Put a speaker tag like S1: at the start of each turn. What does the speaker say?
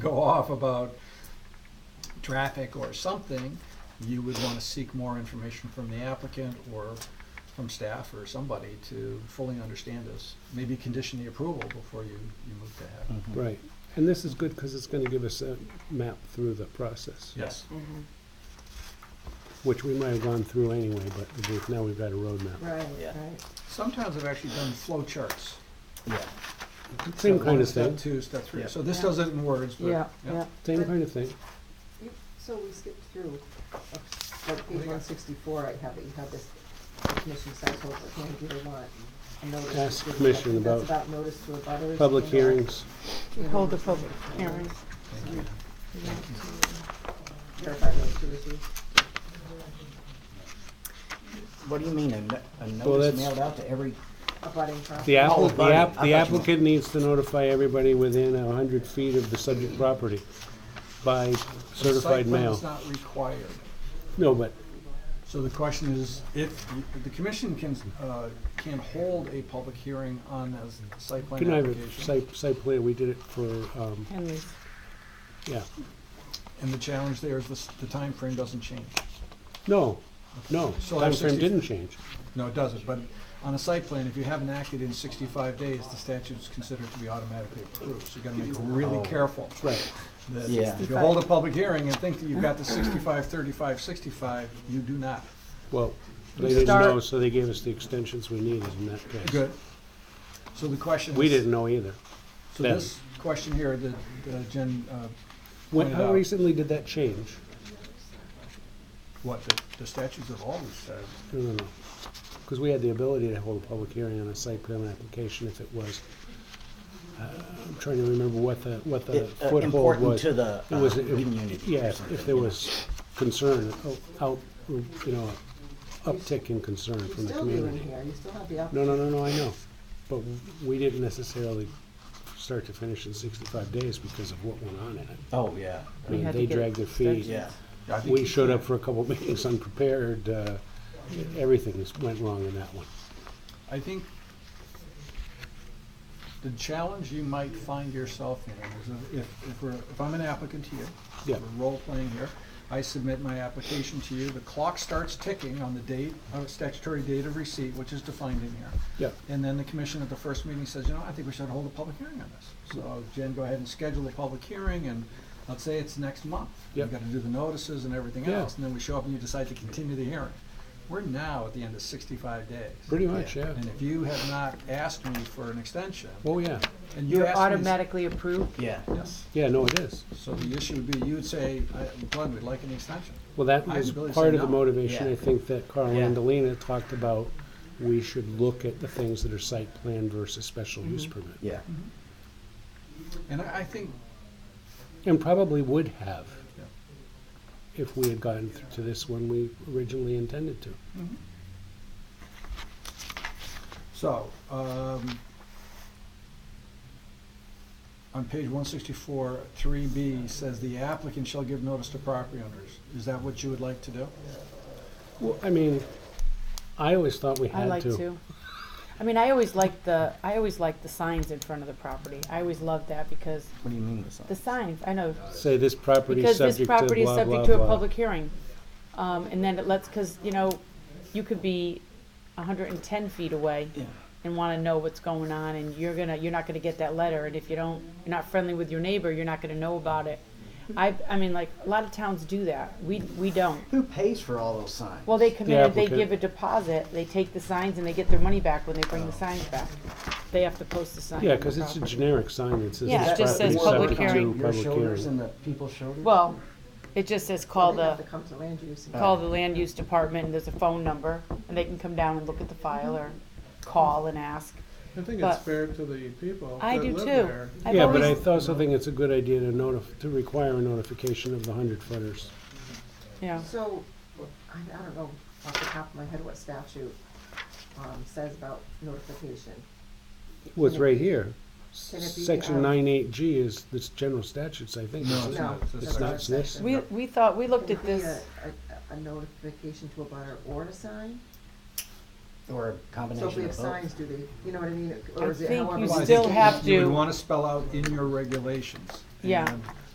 S1: go off about traffic or something, you would want to seek more information from the applicant or from staff or somebody to fully understand this. Maybe condition the approval before you, you move to have.
S2: Right, and this is good because it's gonna give us a map through the process,
S1: Yes.
S3: Mm-hmm.
S2: which we might have gone through anyway, but we've- now we've got a roadmap.
S3: Right,
S4: Yeah.
S3: right.
S1: Sometimes I've actually done flow charts.
S4: Yeah.
S2: Same
S1: Step
S2: kind
S1: one,
S2: of thing,
S1: Step two, step three.
S4: Yeah.
S1: So this
S3: Yeah.
S1: does it in words, but.
S3: Yeah, yeah.
S2: same kind of thing.
S3: So we skipped through, uh, like page one sixty-four, I have it, you have this, the commission says, hold, can you do want a notice? to
S2: Ask
S3: give-
S2: commission
S3: that's
S2: about
S3: About notice to a butters.
S2: Public
S3: and, uh,
S2: hearings,
S3: you know,
S5: Hold the public hearing.
S1: Thank you.
S3: Clarify those two issues.
S4: What do you mean, a no- a
S2: Well,
S4: notice
S2: that's-
S4: mailed out to every,
S3: Abutting property.
S2: the
S4: Oh,
S2: applicant, the
S4: about it.
S2: app-
S4: I
S2: the
S4: thought you meant-
S2: applicant needs to notify everybody within a hundred feet of the subject property by
S1: But Site
S2: certified mail.
S1: plan is not required.
S2: No, but
S1: So the question is, if, the commission can, uh, can hold a public hearing on a site plan
S2: can I have a
S1: application.
S2: site, site plan, we did it for, um,
S5: Henry's.
S2: yeah,
S1: And the challenge there is the, s- the timeframe doesn't change.
S2: no, no,
S1: So I have
S2: timeframe
S1: 60
S2: didn't change.
S1: No, it doesn't, but on a site plan, if you haven't acted in sixty-five days, the statute is considered to be automatically approved. So you gotta make
S2: Oh.
S1: really careful.
S2: Right,
S1: that
S4: Yeah.
S1: If you hold a public hearing and think that you've got the 65, 35, 65, you do not.
S2: well,
S5: We
S2: they didn't
S5: start-
S2: know, so they gave us the extensions we needed in that case.
S1: Good. So the question is.
S2: We didn't know either.
S1: So
S2: then.
S1: this question here that uh, Jen, uh,
S2: When,
S1: Pointed
S2: how
S1: out.
S2: recently did that change?
S1: what, the- the statutes have always said,
S2: No, no, no. Because we had the ability to hold a public hearing on a site plan application if it was, uh, I'm trying to remember what the, what
S4: It,
S2: the
S4: uh,
S2: foothold
S4: important
S2: was.
S4: to the,
S2: It was-
S4: uh,
S2: it-
S4: community or
S2: Yeah,
S4: something,
S2: if there
S4: you know.
S2: was concern, o- out, you know, uptick in concern
S3: You're
S2: from the
S3: still doing
S2: community.
S3: here, you still have the app.
S2: No, no, no, no, I know. But w- we didn't necessarily start to finish in sixty-five days because of what went on in it.
S4: Oh, yeah,
S2: I
S5: We
S2: mean,
S5: had to
S2: They
S5: get
S2: dragged their feet.
S4: yeah.
S1: I think
S2: We showed up for a couple meetings unprepared. uh, Everything is- went wrong in that one.
S1: I think the challenge you might find yourself in is if, if we're, if I'm an applicant to you,
S2: Yeah.
S1: we're role playing here, I submit my application to you, the clock starts ticking on the date, uh, statutory date of receipt, which is defined in here.
S2: Yeah,
S1: And then the commission at the first meeting says, you know, I think we should hold a public hearing on this. So Jen, go ahead and schedule a public hearing and let's say it's next month. You've
S2: Yep.
S1: got to do the notices and everything
S2: Yeah.
S1: else, and then we show up and you decide to continue the hearing. We're now at the end of sixty-five days.
S2: pretty much, yeah.
S1: And if you have not asked me for an extension,
S2: Oh, yeah.
S1: and you
S5: You're
S1: asked me-
S5: automatically approved?
S4: Yeah,
S1: Yes.
S2: Yeah, no, it is.
S1: So the issue would be, you'd say, I- Glenn, we'd like an extension.
S2: Well, that
S1: I
S2: was
S1: would really
S2: part
S1: say
S2: of the
S1: no.
S2: motivation,
S4: Yeah.
S2: I think, that Carl
S4: Yeah.
S2: Andalina talked about. We should look at the things that are site plan versus special use
S5: Mm-hmm.
S2: permit.
S4: yeah,
S1: And I, I think,
S2: And probably would have
S1: Yeah.
S2: if we had gotten th- to this when we originally intended to.
S1: so, um, on page one sixty-four, three B says the applicant shall give notice to property owners. Is that what you would like to do?
S2: Well, I mean, I always thought we
S5: I
S2: had
S5: like to. I mean, I always liked the, I always liked the signs in front of the property. I always loved that because
S4: what do you mean with something?
S5: the signs, I know,
S2: Say this property
S5: because
S2: subject to
S5: this property is
S2: blah,
S5: subject
S2: blah,
S5: to a
S2: blah.
S5: public hearing. Um, and then it lets, cause you know, you could be hundred and ten feet away
S4: Yeah.
S5: and wanna know what's going on and you're gonna, you're not gonna get that letter and if you don't, you're not friendly with your neighbor, you're not gonna know about it. I, I mean, like, a lot of towns do that. We, we don't.
S4: Who pays for all those signs?
S5: Well, they come
S2: The
S5: in and they
S2: applicant.
S5: give a deposit, they take the signs and they get their money back when they bring the signs back. They have to post the sign.
S2: Yeah,
S5: on the
S2: because it's a
S5: property.
S2: generic sign that says.
S5: Yeah,
S2: this
S5: it just
S2: property
S5: says
S2: is
S5: public
S2: subject to
S5: hearing.
S4: Your
S2: public
S4: shoulders and
S2: hearing.
S4: the people's shoulders?
S5: Well, it just says call
S3: They have to
S5: the,
S3: come to land use. and-
S5: call the land use department and there's a phone number and they can come down and look at the file or call and ask.
S6: I think
S5: But-
S6: it's fair to the people
S5: I
S6: that
S5: do
S6: live
S5: too.
S6: there.
S5: I've
S2: Yeah, but I
S5: always-
S2: th- also think it's a good idea to notif, to require a notification of the hundred footers.
S5: Yeah,
S3: So, I, I don't know off the top of my head what statute, um, says about notification.
S2: Well, it's right here.
S3: Can it be,
S2: Section
S3: um,
S2: nine eight G is, it's general statutes, I think.
S1: No,
S2: isn't it?
S3: No.
S2: It's not
S3: another
S2: this.
S3: section.
S5: we, we thought, we looked
S3: Can
S5: at
S3: it be
S5: this,
S3: A, a- a notification to a butter or a sign?
S4: Or a
S3: So if we
S4: combination
S3: have
S4: of both?
S3: signs, do they, you know what I mean,
S5: I
S3: or is it
S5: think
S3: however?
S5: you
S1: Well, I
S5: still
S1: think
S5: have
S1: You
S5: to-
S1: would want to spell out in your regulations.
S5: Yeah.
S1: and